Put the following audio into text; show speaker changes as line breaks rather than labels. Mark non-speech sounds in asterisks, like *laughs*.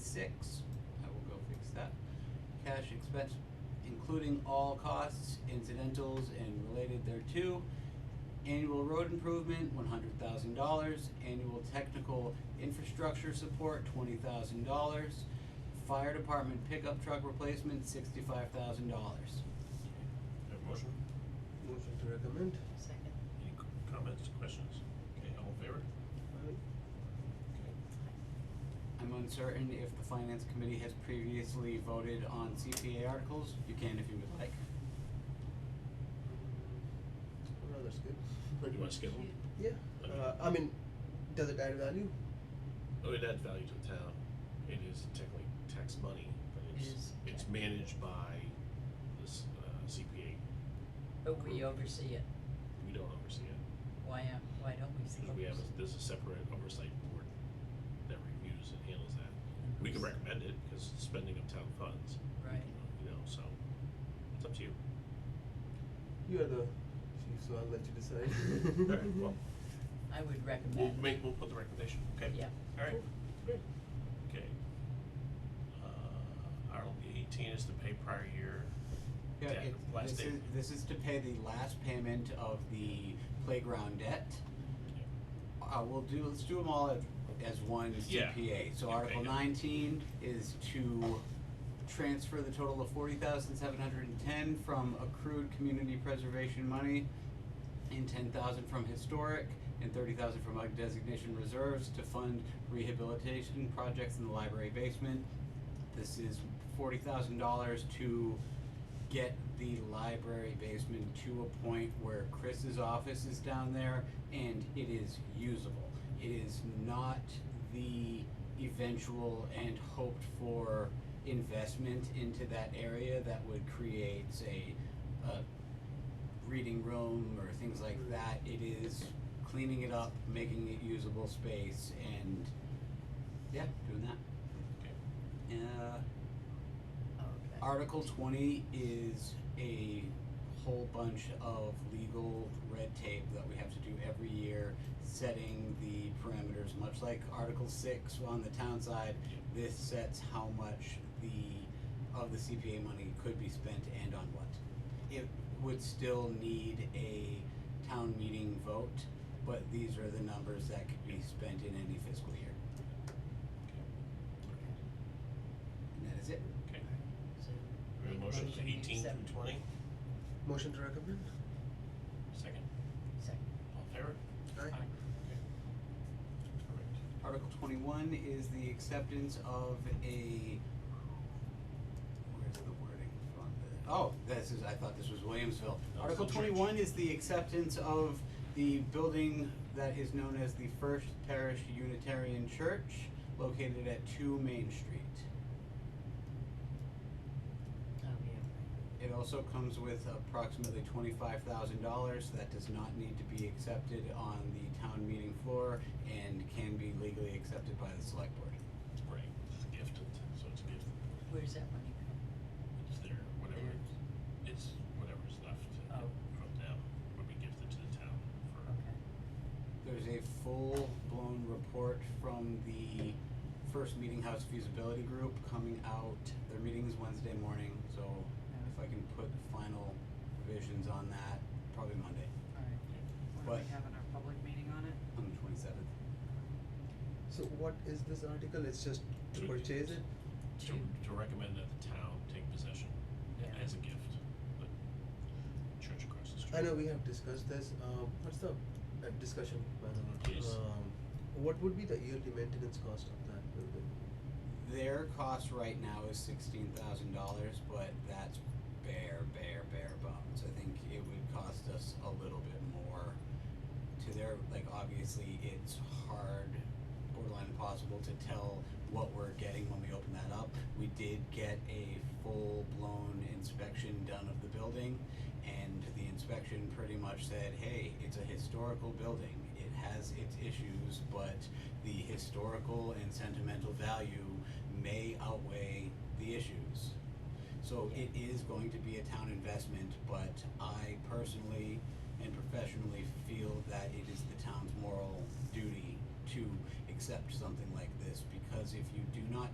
six, I will go fix that. Cash expense, including all costs, incidentals and related thereto. Annual road improvement, one hundred thousand dollars. Annual technical infrastructure support, twenty thousand dollars. Fire department pickup truck replacement, sixty-five thousand dollars.
Have a motion?
Motion to recommend.
Second.
Any c- comments, questions? Okay, all in favor? Okay.
I'm uncertain if the finance committee has previously voted on CPA articles. You can if you would like.
Well, Oh, that's good.
Do you wanna skip them?
Yeah, uh, I mean, does it add value?
Oh, it adds value to the town. It is technically tax money, but
It
it's,
is
it's
tax.
managed by this uh, CPA.
But we oversee it.
We don't oversee it,
Why, am- why don't we see
because we have, a- there's a separate oversight board that reviews and handles that. We can recommend it, because spending of town funds,
Right.
you know, so, it's up to
*laughs*
you.
You are the chief, so I'll let you decide.
*laughs* Alright, well,
I would
we'll
recommend.
make, we'll put the recommendation, okay?
Yeah.
Alright, great, okay. Uh, Article eighteen is to pay prior year
Yeah,
debt,
it, this
last day.
is, this is to pay the last payment of the playground debt.
Yeah.
Uh, we'll do, let's do them all as, as one
Yeah.
CPA. So
Yeah,
Article
yeah.
nineteen is to transfer the total of forty thousand seven hundred and ten from accrued community preservation money and ten thousand from historic and thirty thousand from UG designation reserves to fund rehabilitation projects in the library basement. This is forty thousand dollars to get the library basement to a point where Chris's office is down there and it is usable. It is not the eventual and hoped for investment into that area that would create, say, a reading room or things like that. It is cleaning it up, making it usable space and, yeah, doing that.
Okay.
Uh,
Oh, Okay.
Article twenty is a whole bunch of legal red tape that we have to do every year, setting the parameters, much like Article six on the town side. This sets how much the, of the CPA money could be spent and on what. It would still need a town meeting vote, but these are the numbers that could be spent in any fiscal year, and that is it.
Okay.
So
We have
make
a motion to
we
eighteen
accept-
through twenty.
Motion to recommend.
Second.
Second.
All in favor?
Aye.
Okay. Correct.
Article twenty-one is the acceptance of a, where's the wording from the, oh, this is, I thought this was Williamsville.
No,
Article
it's the church.
twenty-one is the acceptance of the building that is known as the First Parish Unitarian Church, located at two Main Street.
Oh, yeah.
It also comes with approximately twenty-five thousand dollars that does not need to be accepted on the town meeting floor and can be legally accepted by the select board.
Right, it's gifted, so it's gifted.
Where's that money from?
It's there, whatever,
There.
it's whatever's left uh,
Oh.
from them, would be gifted to the town for,
Okay.
There's a full-blown report from the first Meeting House Feasibility Group coming out. Their meeting is Wednesday morning, so if I can put final revisions on that, probably Monday,
Alright, when are
But-
we having our public meeting on it?
on the twenty-seventh.
So what is this article? It's just to
To-
purchase it?
to, to recommend that the town take possession
Yeah.
as a gift, but church across the street.
I know we have discussed this, um, what's the, uh, discussion panel?
Yes.
Um, what would be the yearly maintenance cost of that building?
Their cost right now is sixteen thousand dollars, but that's bare, bare, bare bones. I think it would cost us a little bit more to their, like, obviously, it's hard, borderline impossible to tell what we're getting when we open that up. We did get a full-blown inspection done of the building, and the inspection pretty much said, hey, it's a historical building. It has its issues, but the historical and sentimental value may outweigh the issues. So it is going to be a town investment, but I personally and professionally feel that it is the town's moral duty to accept something like this, because if you do not